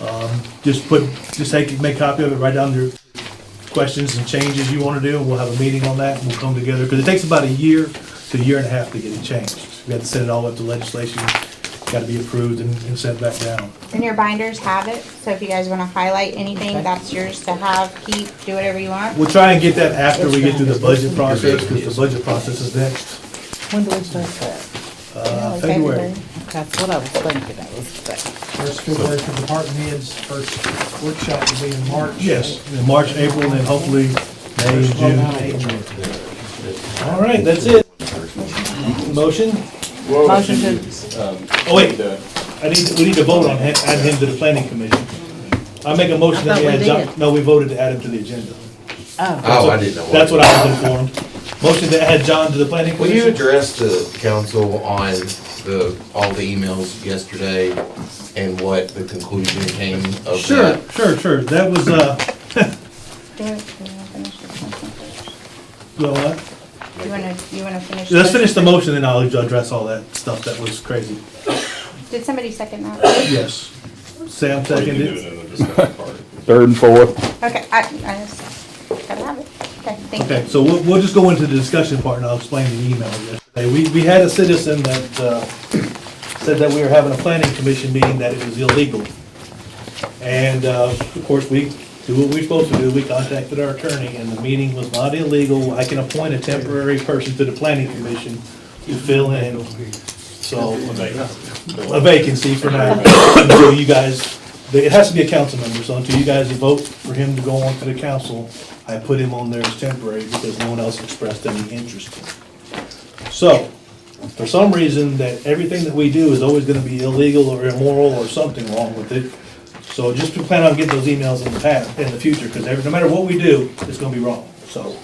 Um, Just put, just take, make copy of it, write down your questions and changes you want to do, and we'll have a meeting on that, and we'll come together, because it takes about a year to a year and a half to get it changed. We have to send it all up to legislation, got to be approved and and sent back down. And your binders have it, so if you guys wanna highlight anything, that's yours to have, keep, do whatever you want. We'll try and get that after we get through the budget process, because the budget process is next, When do we start that? uh, February. That's what I was thinking, I was thinking. First February for department heads, first workshop will be in March. Yes, in March, April, and then hopefully May First one out and June. of April. All right, that's it. Motion? Motion to, Oh, wait, I need, we need to vote on, him- add him to the planning commission. I make a motion that we I thought add we John, did. no, we voted to add him to the agenda. oh, Oh, I didn't know. That's what I was informed. Motion to add John to the planning Will you commission? address the council on the, all the emails yesterday and what the conclusion came of that? Sure, sure, sure, that was, uh, Do you wanna finish your question? you know what? You wanna, you wanna finish? let's this? finish the motion, then I'll address all that stuff that was crazy. Did somebody second that? Yes. Sam seconded it. Third and fourth. Okay, I, I just, gotta have it, okay, thank Okay, you. so we'll, we'll just go into the discussion part and I'll explain the email yesterday. We, we had a citizen that, uh, said that we were having a planning commission meeting, that it was illegal. And, uh, of course, we do what we're supposed to do, we contacted our attorney and the meeting was not illegal. I can appoint a temporary person to the planning commission to fill in, so, a vacancy for now. Until you guys, it has to be a council member, so until you guys vote for him to go on to the council, I put him on there as temporary because no one else expressed any interest in it. So, for some reason, that everything that we do is always gonna be illegal or immoral or something wrong with it. So just to plan on getting those emails in the past, in the future, because every, no matter what we do, it's gonna be wrong, so.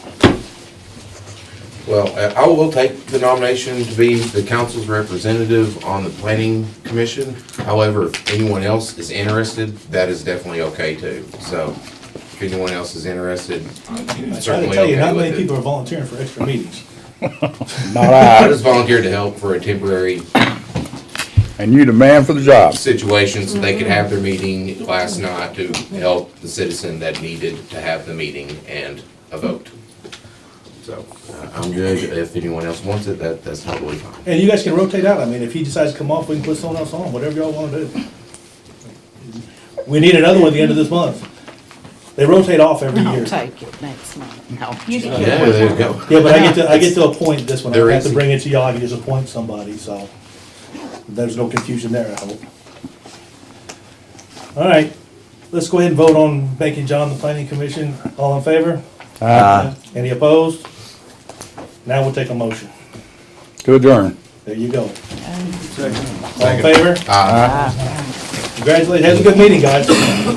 Well, I- I will take the nomination to be the council's representative on the planning commission. However, if anyone else is interested, that is definitely okay too. So if anyone else is interested, I I'm try to certainly tell you, okay not many with people it. are volunteering for extra meetings. Not I I. just volunteered to help for a temporary And you the man for the job. situation so they could have their meeting last night to help the citizen that needed to have the meeting and a vote. So uh, I'm good. If anyone else wants it, that, that's totally fine. And you guys can rotate out. I mean, if he decides to come off, we can put someone else on, whatever y'all wanna do. We need another one at the end of this month. They rotate off every I'll year. take it next month. No. You can keep Yeah, there you go. Yeah, but I get to, I get to appoint this one. I There don't have is- to bring it to y'all. I can just appoint somebody, so there's no confusion there, I hope. All right, let's go ahead and vote on making John the planning commission. All in favor? Uh, Any opposed? Now we'll take a motion. To adjourn. There you go. All in favor? Uh, Congratulations. Have a good meeting, guys.